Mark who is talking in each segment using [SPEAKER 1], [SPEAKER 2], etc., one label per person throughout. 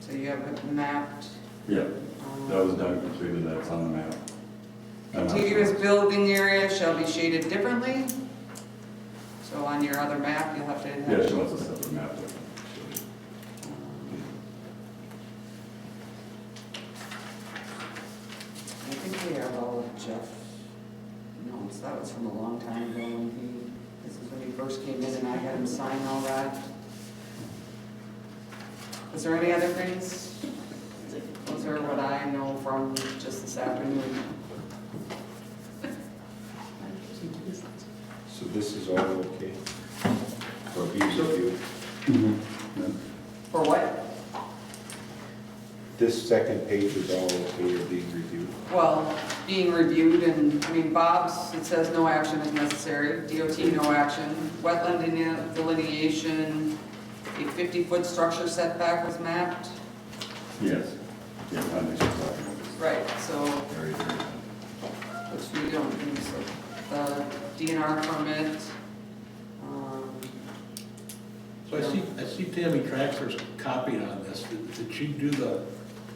[SPEAKER 1] So you have it mapped.
[SPEAKER 2] Yeah,
[SPEAKER 1] um,
[SPEAKER 2] that was done completely, that's on the map. And that's-
[SPEAKER 1] Contiguous building area shall be shaded differently. So on your other map, you'll have to. have-
[SPEAKER 2] Yeah, she wants a separate map. there.
[SPEAKER 1] I think we have all of Jeff notes, that was from a long time ago when he, this is when he first came in and I had him sign all that. Was there any other things? Those are what I know from just this afternoon.
[SPEAKER 3] So this is all okay for ease of you.
[SPEAKER 2] Yeah.
[SPEAKER 1] For what?
[SPEAKER 3] This second page is all okay or being reviewed.
[SPEAKER 1] Well, being reviewed and, I mean, Bob's, it says no action is necessary, DOT no action, wetland deline- delineation, a 50-foot structure setback was mapped.
[SPEAKER 2] Yes, yeah, I think she's talking about this.
[SPEAKER 1] Right, so
[SPEAKER 2] Very, very.
[SPEAKER 1] which we don't do, so the DNR permit. um,
[SPEAKER 4] So I see, I see Tammy Traxler's copied on this. Did did she do the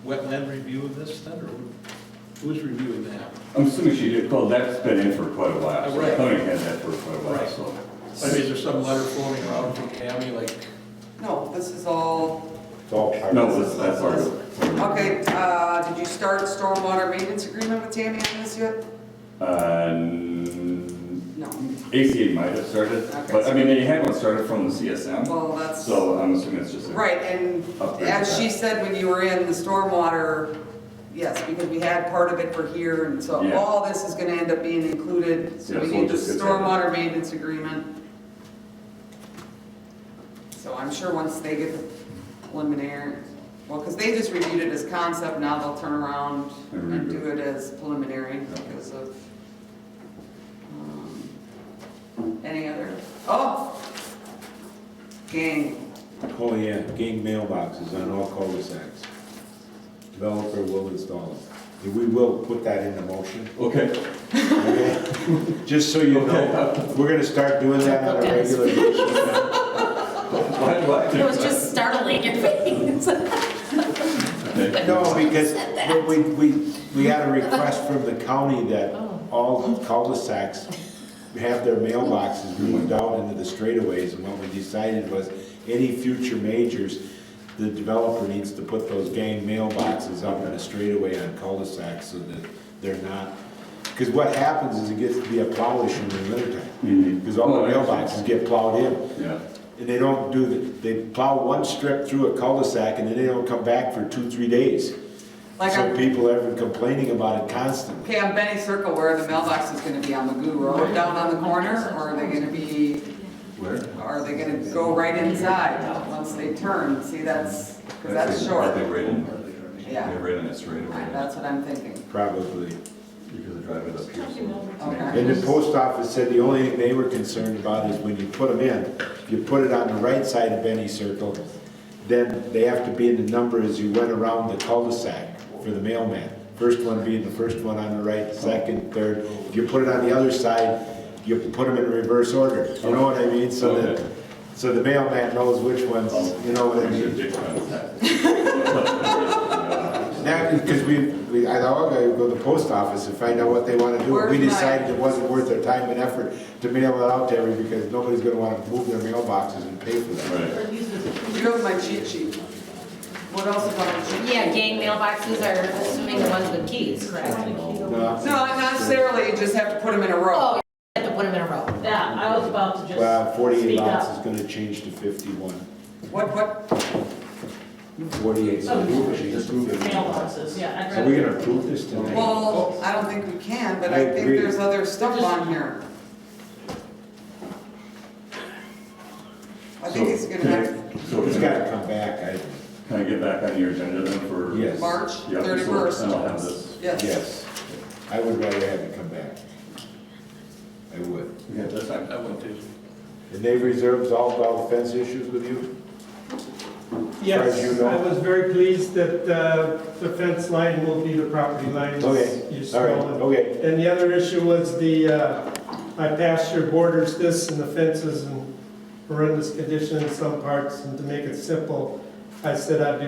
[SPEAKER 4] wetland review of this then, or who- who's reviewing that?
[SPEAKER 2] I'm assuming she did, well, that's been in for quite a while,
[SPEAKER 4] Oh,
[SPEAKER 2] so
[SPEAKER 4] right.
[SPEAKER 2] Tony had that for quite a while,
[SPEAKER 4] Right.
[SPEAKER 2] so.
[SPEAKER 4] I mean, is there some letter floating around from Tammy, like,
[SPEAKER 1] No, this is all,
[SPEAKER 3] It's all part
[SPEAKER 2] No,
[SPEAKER 3] of
[SPEAKER 2] that's, that's our, our-
[SPEAKER 1] okay, uh, did you start stormwater maintenance agreement with Tammy on this yet?
[SPEAKER 2] uh, n-
[SPEAKER 1] No,
[SPEAKER 2] ACA might have started,
[SPEAKER 1] Okay.
[SPEAKER 2] but I mean, they had one started from the CSM,
[SPEAKER 1] well, that's,
[SPEAKER 2] so I'm assuming it's just. a-
[SPEAKER 1] right, and
[SPEAKER 2] Upgrade
[SPEAKER 1] as
[SPEAKER 2] that.
[SPEAKER 1] she said when you were in, the stormwater, yes, because we had part of it for here, and so
[SPEAKER 2] Yeah.
[SPEAKER 1] all this is gonna end up being included, so
[SPEAKER 2] Yeah,
[SPEAKER 1] we
[SPEAKER 2] so we'll
[SPEAKER 1] need the
[SPEAKER 2] just get that.
[SPEAKER 1] stormwater maintenance agreement. So I'm sure once they get preliminary, well, because they just reviewed it as concept, now they'll turn around
[SPEAKER 2] And
[SPEAKER 1] and
[SPEAKER 2] redo
[SPEAKER 1] do it as preliminary
[SPEAKER 2] Yeah.
[SPEAKER 1] because of. um, Any other, oh! Gang,
[SPEAKER 3] Oh, yeah, gang mailboxes on all cul-de-sacs. Developer will install them. And we will put that in the motion,
[SPEAKER 2] Okay,
[SPEAKER 3] okay? Just so you know,
[SPEAKER 2] Okay.
[SPEAKER 3] we're gonna start doing that on a regular basis.
[SPEAKER 2] why, why?
[SPEAKER 5] It was just startling your face.
[SPEAKER 2] Okay.
[SPEAKER 3] No, because we, we, we had a request from the county that all cul-de-sacs have their mailboxes moved out into the straightaways, and what we decided was, any future majors, the developer needs to put those gang mailboxes up in a straightaway on cul-de-sacs so that they're not, because what happens is it gets to be a plow issue in the wintertime,
[SPEAKER 2] Mhm.
[SPEAKER 3] because Mm-hmm, all
[SPEAKER 2] Oh,
[SPEAKER 3] the
[SPEAKER 2] yeah.
[SPEAKER 3] mailboxes get plowed in.
[SPEAKER 2] Yeah,
[SPEAKER 3] And they don't do, the- they plow one strip through a cul-de-sac and then they don't come back for two, three days.
[SPEAKER 1] like
[SPEAKER 3] So
[SPEAKER 1] I'm,
[SPEAKER 3] people have been complaining about it constantly.
[SPEAKER 1] okay, on Benny Circle, where the mailbox is gonna be on Magoo Road, down on the corner, or are they gonna be,
[SPEAKER 2] where?
[SPEAKER 1] are they gonna go right inside once they turn? See, that's, because that's
[SPEAKER 2] I
[SPEAKER 1] short,
[SPEAKER 2] think right in,
[SPEAKER 1] Yeah.
[SPEAKER 2] yeah, right in it straight away,
[SPEAKER 1] that's what I'm thinking.
[SPEAKER 3] Probably.
[SPEAKER 2] because the driveway is up here. so-
[SPEAKER 1] Okay.
[SPEAKER 3] And the post office said the only thing they were concerned about is when you put them in, you put it on the right side of any circle, then they have to be in the number as you went around the cul-de-sac for the mailman. First one being the first one on the right, second, third. If you put it on the other side, you put them in reverse order, you know what I mean? So
[SPEAKER 2] Okay.
[SPEAKER 3] that, so the mailman knows which ones, you know what I
[SPEAKER 2] We
[SPEAKER 3] mean?
[SPEAKER 2] should dig around that.
[SPEAKER 3] Now, because we, we, I thought I'd go to the post office and find out what they want to do.
[SPEAKER 1] Where's
[SPEAKER 3] We
[SPEAKER 1] my-
[SPEAKER 3] decided it wasn't worth their time and effort to mail it out to everybody because nobody's gonna want to move their mailboxes and pay for that.
[SPEAKER 2] Right.
[SPEAKER 1] You have my cheat sheet. What else is on the cheat sheet?
[SPEAKER 5] Yeah, gang mailboxes are assuming the ones with keys, correct?
[SPEAKER 3] No.
[SPEAKER 1] No, not necessarily, you just have to put them in a row.
[SPEAKER 5] Oh, you have to put them in a row.
[SPEAKER 6] Yeah, I was about to just.
[SPEAKER 3] Well, forty-eight
[SPEAKER 6] speak
[SPEAKER 3] lots is
[SPEAKER 6] up.
[SPEAKER 3] gonna change to fifty-one.
[SPEAKER 1] What, what,
[SPEAKER 3] Forty-eight,
[SPEAKER 6] Oh,
[SPEAKER 3] so we're just
[SPEAKER 6] Mailboxes, yeah. I'd
[SPEAKER 3] So we're
[SPEAKER 6] rather-
[SPEAKER 3] gonna approve this tonight?
[SPEAKER 1] well, I don't think we can, but
[SPEAKER 3] I
[SPEAKER 1] I think
[SPEAKER 3] agree.
[SPEAKER 1] there's other stuff on here. I think it's gonna have
[SPEAKER 2] So
[SPEAKER 3] Oh, It's
[SPEAKER 2] can I,
[SPEAKER 3] gotta come back, I,
[SPEAKER 2] can I get back on your agenda then for?
[SPEAKER 3] Yes.
[SPEAKER 1] March
[SPEAKER 2] Yeah, so
[SPEAKER 1] thirty-first.
[SPEAKER 2] I'll have this.
[SPEAKER 1] Yes,
[SPEAKER 3] yes. I would rather have it come back. I would.
[SPEAKER 2] Yeah, that's
[SPEAKER 4] I
[SPEAKER 2] fine.
[SPEAKER 4] I went to.
[SPEAKER 3] And they've reserved all dog fence issues with you? Fred, you
[SPEAKER 7] Yes,
[SPEAKER 3] know.
[SPEAKER 7] I was very pleased that uh, the fence line will be the property line. as you
[SPEAKER 3] Okay, all right,
[SPEAKER 7] saw.
[SPEAKER 3] okay.
[SPEAKER 7] And the other issue was the, uh, my pasture borders this and the fences in horrendous condition in some parts, and to make it simple, I said I'd be